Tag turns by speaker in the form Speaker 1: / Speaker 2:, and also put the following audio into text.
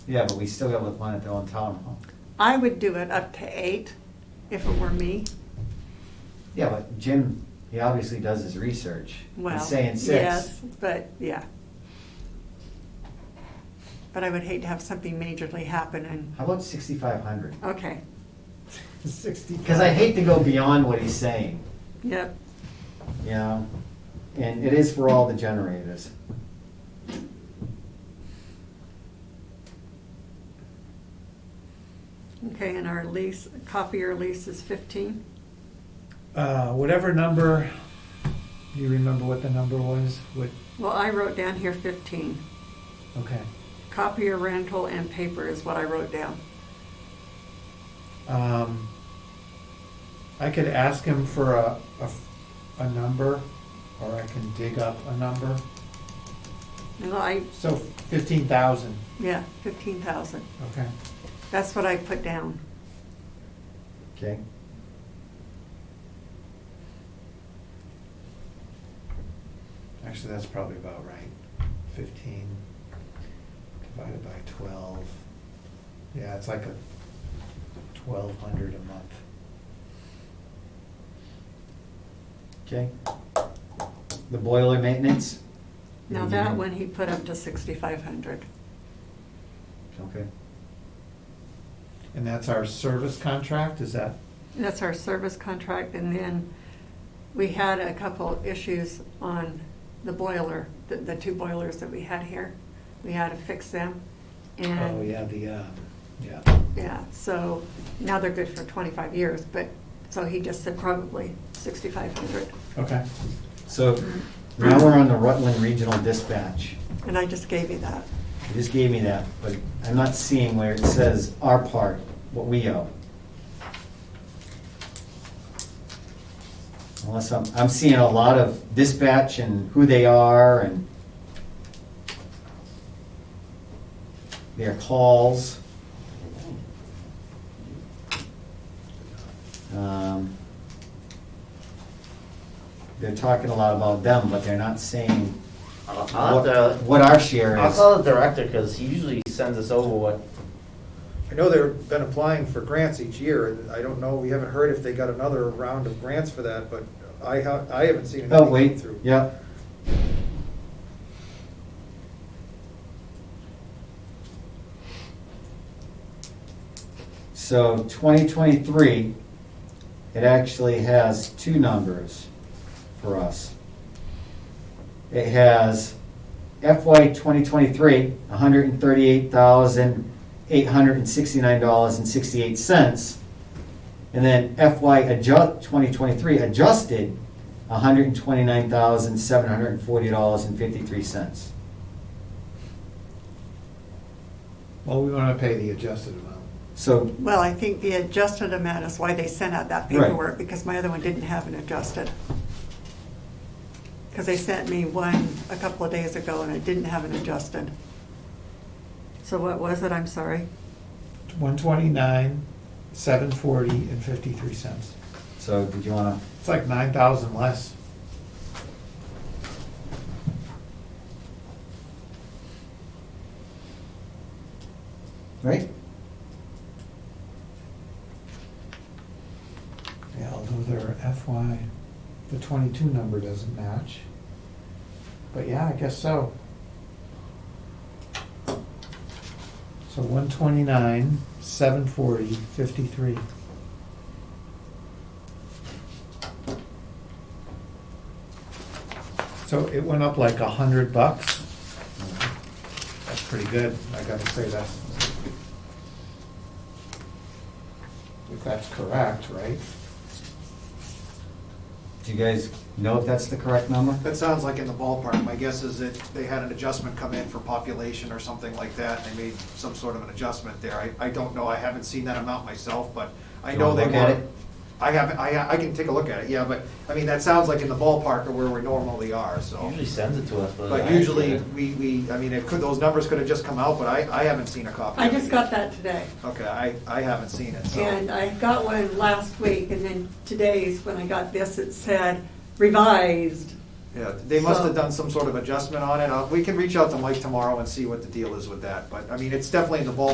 Speaker 1: Yeah, but we still got with one at the old town hall.
Speaker 2: I would do it up to eight if it were me.
Speaker 1: Yeah, but Jim, he obviously does his research.
Speaker 2: Well,
Speaker 1: He's saying six.
Speaker 2: yes, but yeah. But I would hate to have something majorly happen and,
Speaker 1: How about sixty-five hundred?
Speaker 2: okay,
Speaker 3: Sixty.
Speaker 1: Because I hate to go beyond what he's saying,
Speaker 2: yep,
Speaker 1: you know? And it is for all the generators.
Speaker 2: okay, and our lease, copier lease is fifteen?
Speaker 3: Uh, whatever number, you remember what the number was, what,
Speaker 2: Well, I wrote down here fifteen.
Speaker 3: okay.
Speaker 2: Copier rental and paper is what I wrote down.
Speaker 3: Um, I could ask him for a, a, a number, or I can dig up a number.
Speaker 2: And I,
Speaker 3: So fifteen thousand,
Speaker 2: yeah, fifteen thousand.
Speaker 3: okay.
Speaker 2: That's what I put down.
Speaker 1: Okay.
Speaker 3: Actually, that's probably about right. Fifteen divided by twelve. Yeah, it's like a twelve hundred a month.
Speaker 1: Okay. The boiler maintenance?
Speaker 2: Now
Speaker 1: Mm-hmm.
Speaker 2: that one he put up to sixty-five hundred.
Speaker 1: Okay.
Speaker 3: And that's our service contract, is that,
Speaker 2: That's our service contract, and then we had a couple issues on the boiler, the, the two boilers that we had here. We had to fix them,
Speaker 3: oh,
Speaker 2: and,
Speaker 3: yeah, the,
Speaker 4: uh,
Speaker 3: um, yeah.
Speaker 2: yeah, so now they're good for twenty-five years, but, so he just said probably sixty-five hundred.
Speaker 3: Okay,
Speaker 1: So now we're on the Rutland Regional Dispatch.
Speaker 2: And I just gave you that.
Speaker 1: You just gave me that, but I'm not seeing where it says our part, what we owe. Unless I'm, I'm seeing a lot of dispatch and who they are and their calls. Um, They're talking a lot about them, but they're not saying
Speaker 5: I'll I'll have
Speaker 1: what
Speaker 5: to,
Speaker 1: what our share
Speaker 5: I'll
Speaker 1: is.
Speaker 5: call the director, because he usually sends us over what,
Speaker 4: I know they've been applying for grants each year, and I don't know, we haven't heard if they got another round of grants for that, but I ha I haven't seen anything
Speaker 1: Oh,
Speaker 4: come
Speaker 1: wait,
Speaker 4: through.
Speaker 1: yeah. So twenty twenty-three, it actually has two numbers for us. It has FY twenty twenty-three, hundred and thirty-eight thousand, eight hundred and sixty-nine dollars and sixty-eight cents. And then FY adjust, 2023 adjusted, $129,740.53.
Speaker 3: well, we wanna pay the adjusted amount.
Speaker 1: So,
Speaker 2: Well, I think the adjusted amount is why they sent out that
Speaker 1: Right.
Speaker 2: paperwork, because my other one didn't have an adjusted. Because they sent me one a couple of days ago and it didn't have an adjusted. So what was it, I'm sorry?
Speaker 3: One twenty-nine, seven forty, and fifty-three cents.
Speaker 1: so did you want
Speaker 3: It's like nine thousand less.
Speaker 1: to, right?
Speaker 3: Yeah, although their FY, the twenty-two number doesn't match. But yeah, I guess so. So one twenty-nine, seven forty, fifty-three. So it went up like a hundred bucks. That's pretty good, I gotta say that's. If that's correct, right?
Speaker 1: Do you guys know if that's the correct number?
Speaker 6: That sounds like in the ballpark. My guess is that they had an adjustment come in for population or something like that, and they made some sort of an adjustment there. I, I don't know, I haven't seen that amount myself, but I
Speaker 1: Do you
Speaker 6: know
Speaker 1: wanna
Speaker 6: they
Speaker 1: look at
Speaker 6: were.
Speaker 1: it?
Speaker 6: I haven't, I, I can take a look at it, yeah, but, I mean, that sounds like in the ballpark of where we normally are, so.
Speaker 5: usually sends it to us, but.
Speaker 6: But usually, we, we, I mean, it could, those numbers could have just come out, but I, I haven't seen a copy.
Speaker 2: I
Speaker 6: of it yet.
Speaker 2: just got that today.
Speaker 6: Okay, I, I haven't seen
Speaker 3: Oh.
Speaker 6: it, so.
Speaker 2: And I got one last week and then today's, when I got this, it said revised
Speaker 3: Yeah, they must
Speaker 2: So-
Speaker 3: have done some sort of adjustment on it. Uh, We can reach out to Mike tomorrow and see what the deal is with that, but, I mean, it's definitely in the ballpark